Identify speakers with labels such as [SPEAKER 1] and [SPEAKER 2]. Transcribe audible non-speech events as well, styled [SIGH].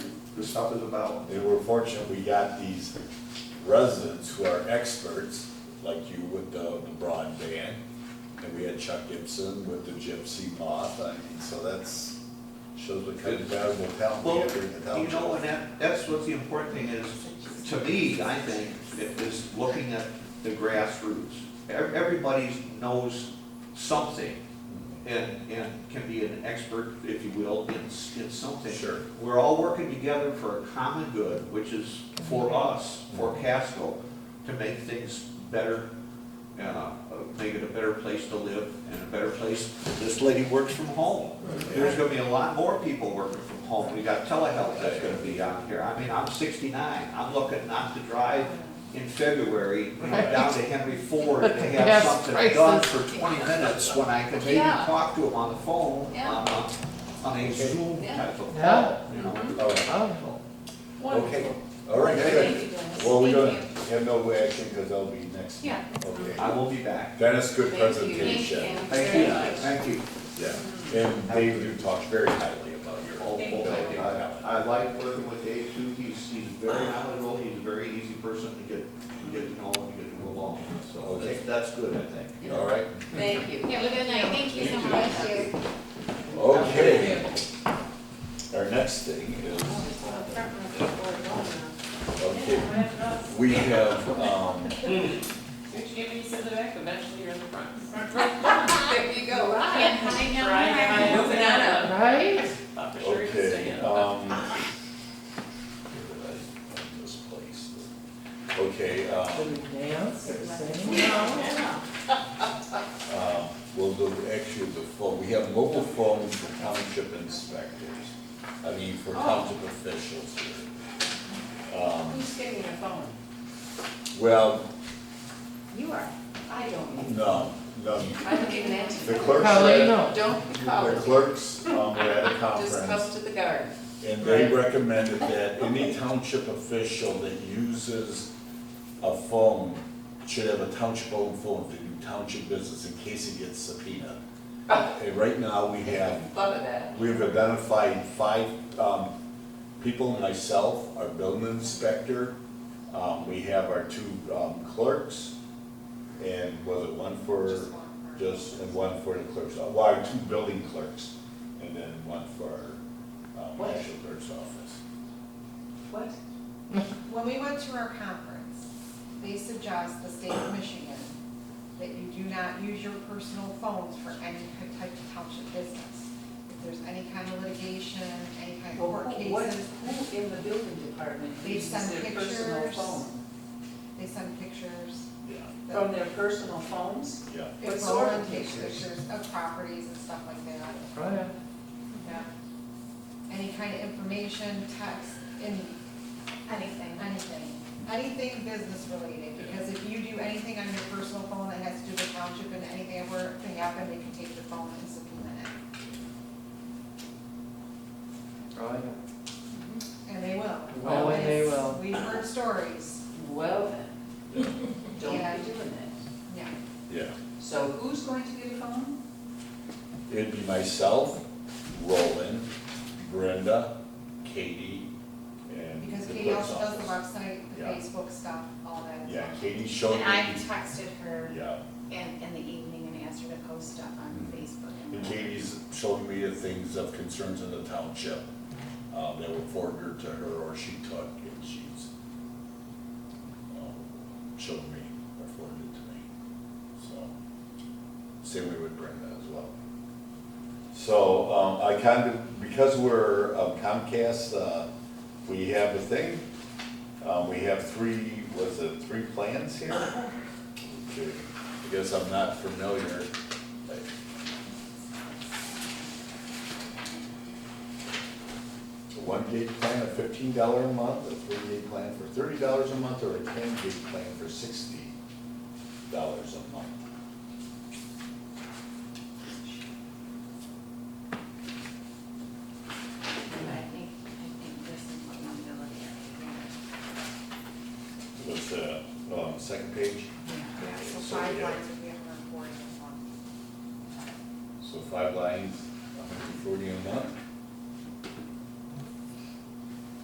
[SPEAKER 1] there's something about,
[SPEAKER 2] They were fortunate, we got these residents who are experts, like you with the the broadband, and we had Chuck Gibson with the gypsy moth, I mean, so that's, shows what kind of valuable talent we
[SPEAKER 1] well,
[SPEAKER 2] have in the
[SPEAKER 1] you know,
[SPEAKER 2] township.
[SPEAKER 1] and that, that's what the important thing is, to me, I think, it is looking at the grassroots. Ev- Everybody knows something and, and can be an expert, if you will, in, s- in something.
[SPEAKER 2] Sure.
[SPEAKER 1] We're all working together for a common good, which is for us, for Casco, to make things better, uh, make it a better place to live and a better place. This lady works from home. There's gonna be a lot more people working from home. We got telehealth that's gonna be out here. I mean, I'm sixty-nine. I'm looking not to drive in February, you know, down to Henry Ford
[SPEAKER 3] [LAUGHS]
[SPEAKER 1] to have
[SPEAKER 4] Gas
[SPEAKER 1] something done
[SPEAKER 4] prices.
[SPEAKER 1] for twenty minutes when I could maybe
[SPEAKER 3] Yeah.
[SPEAKER 1] talk to him on the phone,
[SPEAKER 3] Yeah.
[SPEAKER 1] on a, on a Zoom
[SPEAKER 3] Yeah.
[SPEAKER 1] type of
[SPEAKER 4] Yeah.
[SPEAKER 1] call, you know?
[SPEAKER 2] All right,
[SPEAKER 4] Oh,
[SPEAKER 2] Okay,
[SPEAKER 3] Wonderful.
[SPEAKER 2] all right, good.
[SPEAKER 3] Thank you, Dennis.
[SPEAKER 2] Well, we're
[SPEAKER 3] Thank
[SPEAKER 2] gonna have no action, because I'll be next.
[SPEAKER 3] Yeah.
[SPEAKER 2] Okay.
[SPEAKER 1] I will be back.
[SPEAKER 2] Dennis, good
[SPEAKER 3] Thank you.
[SPEAKER 2] presentation.
[SPEAKER 1] Thank you, thank you.
[SPEAKER 2] Yeah, and Dave, you talked very highly about your whole
[SPEAKER 3] Thank you.
[SPEAKER 2] building.
[SPEAKER 1] I, I like working with Dave too, he's, he's very knowledgeable, he's a very easy person to get, to get to know and to get to go along with, so
[SPEAKER 2] Okay.
[SPEAKER 1] that's, that's good, I think.
[SPEAKER 3] you.
[SPEAKER 2] All right,
[SPEAKER 3] Thank you. Have a good night. Thank you so
[SPEAKER 1] You too.
[SPEAKER 3] much.
[SPEAKER 2] okay. Our next thing is, okay, we have, um,
[SPEAKER 5] Which gave me some of the back, eventually you're in the front.
[SPEAKER 3] [LAUGHS] There you go. Can't hide now.
[SPEAKER 5] Right, I know, banana.
[SPEAKER 4] right?
[SPEAKER 5] Thought for sure you'd stay
[SPEAKER 2] okay,
[SPEAKER 5] in.
[SPEAKER 2] um. This place. Okay,
[SPEAKER 4] Do
[SPEAKER 2] um,
[SPEAKER 4] we dance or sing?
[SPEAKER 2] um, well, the, actually, the phone, we have mobile phones for township inspectors. I mean, for township officials here. Um,
[SPEAKER 3] Who's getting your phone?
[SPEAKER 2] well,
[SPEAKER 3] You are. I don't.
[SPEAKER 2] no, no,
[SPEAKER 3] I'm getting that.
[SPEAKER 2] the clerks. are at-
[SPEAKER 4] Probably no.
[SPEAKER 3] Don't be
[SPEAKER 2] The
[SPEAKER 3] called.
[SPEAKER 2] clerks um, were at a
[SPEAKER 3] Just come
[SPEAKER 2] conference,
[SPEAKER 3] to the guard.
[SPEAKER 2] and they recommended that any township official that uses a phone should have a township-owned phone to do township business in case it gets subpoenaed. And right now, we have,
[SPEAKER 3] Love of that.
[SPEAKER 2] we've identified five um, people, myself, our building inspector, um, we have our two um, clerks, and was it one for just, and one for the clerk's, Uh, well, our two building clerks, and then one for our um,
[SPEAKER 3] What?
[SPEAKER 2] national clerk's office.
[SPEAKER 3] What?
[SPEAKER 6] When we went to our conference, they suggest the state of Michigan that you do not use your personal phones for any type of township business. If there's any kind of litigation, any kind of
[SPEAKER 7] Well,
[SPEAKER 6] court
[SPEAKER 7] who, what,
[SPEAKER 6] cases,
[SPEAKER 7] who in the building department
[SPEAKER 6] They
[SPEAKER 7] uses
[SPEAKER 6] send
[SPEAKER 7] their personal
[SPEAKER 6] pictures.
[SPEAKER 7] phone?
[SPEAKER 6] they send pictures.
[SPEAKER 2] Yeah,
[SPEAKER 6] that-
[SPEAKER 7] From their personal phones?
[SPEAKER 2] yeah.
[SPEAKER 7] What
[SPEAKER 6] If
[SPEAKER 7] sort
[SPEAKER 6] Roland
[SPEAKER 7] of
[SPEAKER 6] takes
[SPEAKER 7] pictures?
[SPEAKER 6] pictures of properties and stuff like that,
[SPEAKER 4] Oh, yeah.
[SPEAKER 6] yeah. Any kind of information, text, any,
[SPEAKER 3] Anything.
[SPEAKER 6] Anything, anything business related, because if you do anything on your personal phone that has to do with township and anything ever to happen, they can take your phone and subpoena it, and they will.
[SPEAKER 4] Oh, and they will.
[SPEAKER 6] We've heard stories,
[SPEAKER 7] Well then,
[SPEAKER 2] Yeah,
[SPEAKER 7] don't
[SPEAKER 6] Yeah.
[SPEAKER 7] be doing that.
[SPEAKER 6] yeah,
[SPEAKER 2] yeah.
[SPEAKER 7] So who's going to get a phone?
[SPEAKER 2] It'd be myself, Roland, Brenda, Katie, and
[SPEAKER 6] because
[SPEAKER 2] the
[SPEAKER 6] Katie
[SPEAKER 2] clerk's
[SPEAKER 6] also does the
[SPEAKER 2] office.
[SPEAKER 6] website, the
[SPEAKER 2] Yeah.
[SPEAKER 6] Facebook stuff, all that.
[SPEAKER 2] Yeah, Katie showed me.
[SPEAKER 8] And I texted her
[SPEAKER 2] Yeah,
[SPEAKER 8] in, in the evening and asked her to post stuff on Facebook.
[SPEAKER 2] and Katie's showed me the things of concerns in the township, uh, that were forwarded to her or she took, and she's, um, showed me, or forwarded to me, so. Same way with Brenda as well. So, um, I kind of, because we're um, Comcast, uh, we have a thing, um, we have three, was it three plans here? Okay, I guess I'm not familiar, like, a one gig plan of fifteen dollar a month, a three gig plan for thirty dollars a month, or a ten gig plan for sixty dollars a month.
[SPEAKER 8] And I think, I think this is what I'm gonna look
[SPEAKER 2] What's the, um, second page?
[SPEAKER 6] Yeah, so
[SPEAKER 2] So,
[SPEAKER 6] five
[SPEAKER 2] yeah.
[SPEAKER 6] lines would be a hundred and forty a month.
[SPEAKER 2] So five lines, a hundred and forty a month.